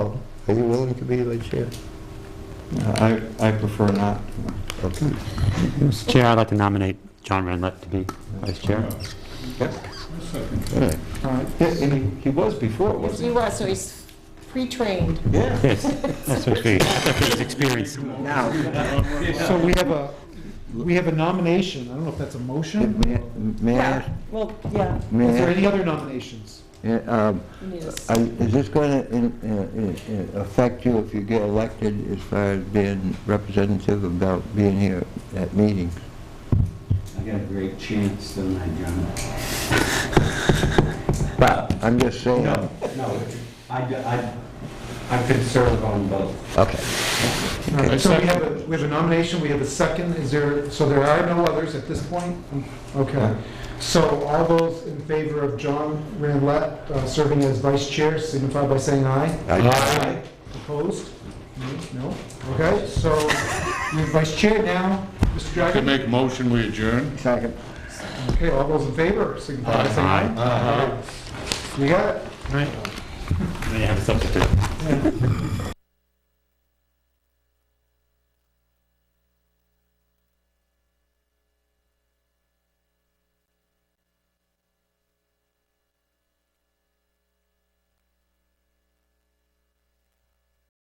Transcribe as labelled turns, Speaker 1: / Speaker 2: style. Speaker 1: Are you willing to be the chair?
Speaker 2: I, I prefer not.
Speaker 1: Okay.
Speaker 3: Mr. Chair, I'd like to nominate John Renlet to be vice chair.
Speaker 2: Yep.
Speaker 1: All right.
Speaker 2: All right. Yeah, and he, he was before,
Speaker 4: Yes, he
Speaker 2: wasn't
Speaker 4: was, so he's pre-trained.
Speaker 2: he? Yeah.
Speaker 3: Yes, that's what we, that's his experience.
Speaker 5: So we have a, we have a nomination. I don't know if that's a motion.
Speaker 1: May I- May I,
Speaker 4: Well, yeah.
Speaker 5: Is there
Speaker 1: may
Speaker 5: any other nominations?
Speaker 1: I, uh, um,
Speaker 4: you need us.
Speaker 1: are- is this going to uh, affect you if you get elected as far as being representative about being here at meetings?
Speaker 6: I got a great chance, don't I, John?
Speaker 1: Well, I'm just saying.
Speaker 6: No, no, I, I, I could serve on both.
Speaker 1: Okay.
Speaker 5: All right, So we have, a we have a nomination, we have a second. Is there, so there are no others at this point? Okay. So all those in favor of John Randlett uh, serving as vice chair signify by saying aye. Aye. Opposed? No? Okay, so you're vice chair now, Mr.
Speaker 7: Can
Speaker 5: Dragon.
Speaker 7: make a motion, we adjourn?
Speaker 1: Second.
Speaker 5: Okay, all those in favor signify by saying aye. Aye. You got it?
Speaker 3: Right. May I have a substitute?